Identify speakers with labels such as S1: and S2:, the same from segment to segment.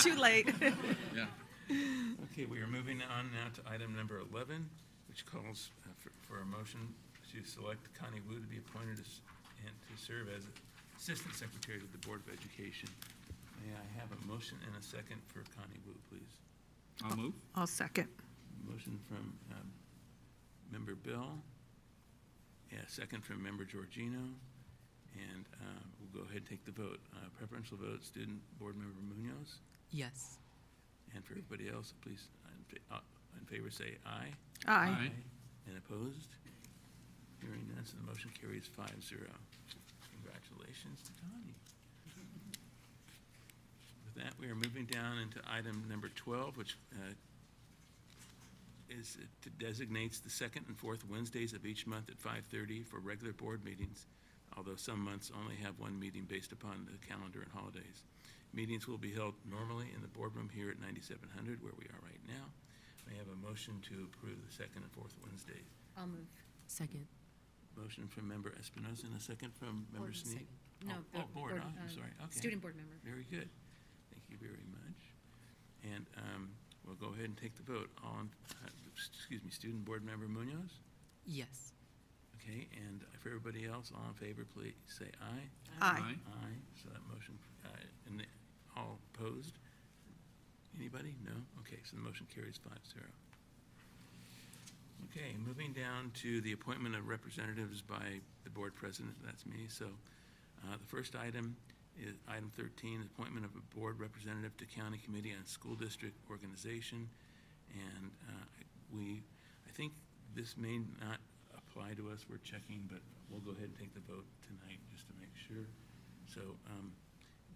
S1: Too late.
S2: Yeah.
S3: Okay, we are moving on now to item number 11, which calls uh, for- for a motion to select Connie Wu to be appointed as- and to serve as Assistant Secretary to the Board of Education. May I have a motion and a second for Connie Wu, please?
S2: I'll move.
S1: I'll second.
S3: Motion from um, Member Bill. Yeah, second from Member Georgino. And uh, we'll go ahead and take the vote. Uh, Preferential vote, student board member Munoz.
S4: Yes.
S3: And for everybody else, please, in fa- uh, in favor, say aye.
S1: Aye.
S3: And opposed? Hearing none, so the motion carries five zero. Congratulations to Connie. With that, we are moving down into item number 12, which uh, is, it designates the second and fourth Wednesdays of each month at 5:30 for regular board meetings, although some months only have one meeting based upon the calendar and holidays. Meetings will be held normally in the boardroom here at 9700, where we are right now. May I have a motion to approve the second and fourth Wednesday?
S5: I'll move.
S4: Second.
S3: Motion from Member Espinoza and a second from Member
S4: Board and
S3: Sneed.
S4: second.
S5: No,
S3: Oh, oh,
S5: the
S3: board,
S5: board,
S3: ah, I'm
S5: uh,
S3: sorry, okay.
S5: Student board member.
S3: Very good. Thank you very much. And um, we'll go ahead and take the vote. All, in- uh, excuse me, Student Board Member Munoz?
S4: Yes.
S3: Okay, and for everybody else, all in favor, please say aye.
S1: Aye.
S3: Aye, so that motion, uh, and the- all opposed? Anybody? No? Okay, so the motion carries five zero. Okay, moving down to the appointment of representatives by the board president, that's me. So uh, the first item is item 13, appointment of a board representative to county committee on school district organization. And uh, we, I think this may not apply to us, we're checking, but we'll go ahead and take the vote tonight just to make sure. So um,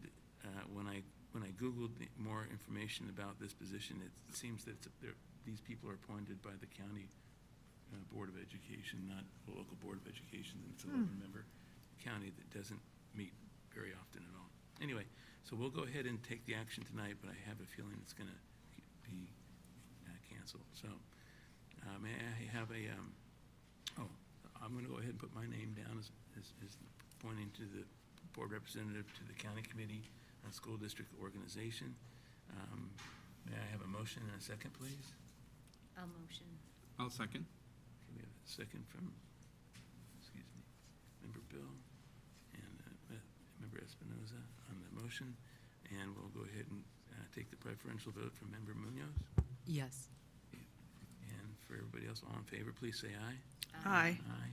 S3: th- uh, when I, when I Googled the- more information about this position, it seems that it's- they're- these people are appointed by the county uh, Board of Education, not the local Board of Education, and it's a 11-member county that doesn't meet very often at all. Anyway, so we'll go ahead and take the action tonight, but I have a feeling it's going to be uh, canceled. So uh, may I have a, um, oh, I'm going to go ahead and put my name down as, as as pointing to the board representative to the county committee on school district organization. Um, May I have a motion and a second, please?
S5: I'll motion.
S2: I'll second.
S3: We have a second from, excuse me, Member Bill and uh, Me- Member Espinoza on the motion. And we'll go ahead and uh, take the preferential vote from Member Munoz.
S4: Yes.
S3: And for everybody else, all in favor, please say aye.
S5: Um,
S1: Aye.
S3: Aye.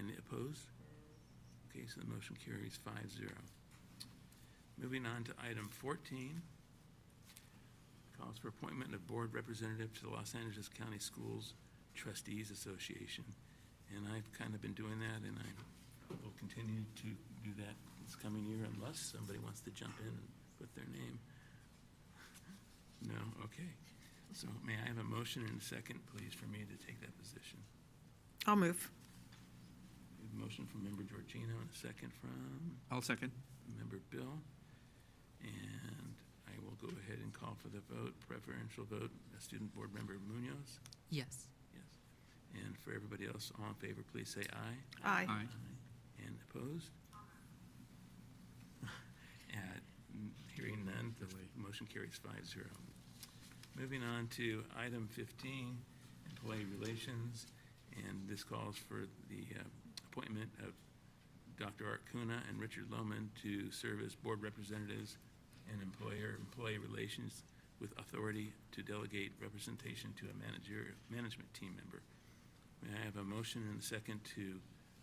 S3: And opposed? Okay, so the motion carries five zero. Moving on to item fourteen. Calls for appointment of board representative to the Los Angeles County Schools Trustees Association. And I've kind of been doing that and I will continue to do that this coming year unless somebody wants to jump in and put their name. No, okay. So may I have a motion and a second, please, for me to take that position?
S1: I'll move.
S3: We have a Motion from Member Georgino and a second from
S2: I'll second.
S3: Member Bill. And I will go ahead and call for the vote, preferential vote, uh, Student Board Member Munoz.
S4: Yes.
S3: Yes. And for everybody else, all in favor, please say aye.
S1: Aye.
S2: Aye.
S3: And opposed? And Hearing none, the motion carries five zero. Moving on to item fifteen, employee relations, and this calls for the uh, appointment of Dr. Art Kuna and Richard Lohman to serve as board representatives and employer-employee relations with authority to delegate representation to a manager, management team member. May I have a motion and a second to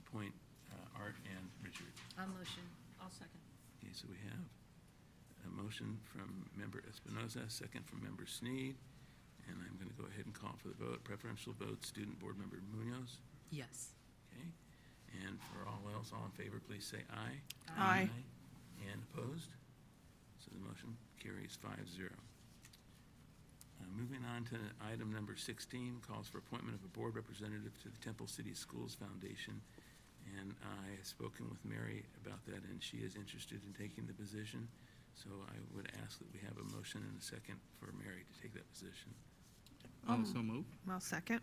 S3: appoint uh, Art and Richard?
S5: I'll motion. I'll second.
S3: Okay, so we have a motion from Member Espinoza, a second from Member Sneed, and I'm going to go ahead and call for the vote. Preferential vote, Student Board Member Munoz.
S4: Yes.
S3: Okay, and for all else, all in favor, please say aye.
S1: Aye. Aye.
S3: And opposed? So the motion carries five zero. Uh, Moving on to item number sixteen, calls for appointment of a board representative to the Temple City Schools Foundation. And I have spoken with Mary about that, and she is interested in taking the position. So I would ask that we have a motion and a second for Mary to take that position.
S2: I'll so move.
S1: I'll second.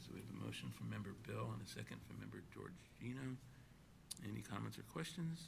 S3: So we have a motion from member Bill and a second from member Georgino. Any comments or questions?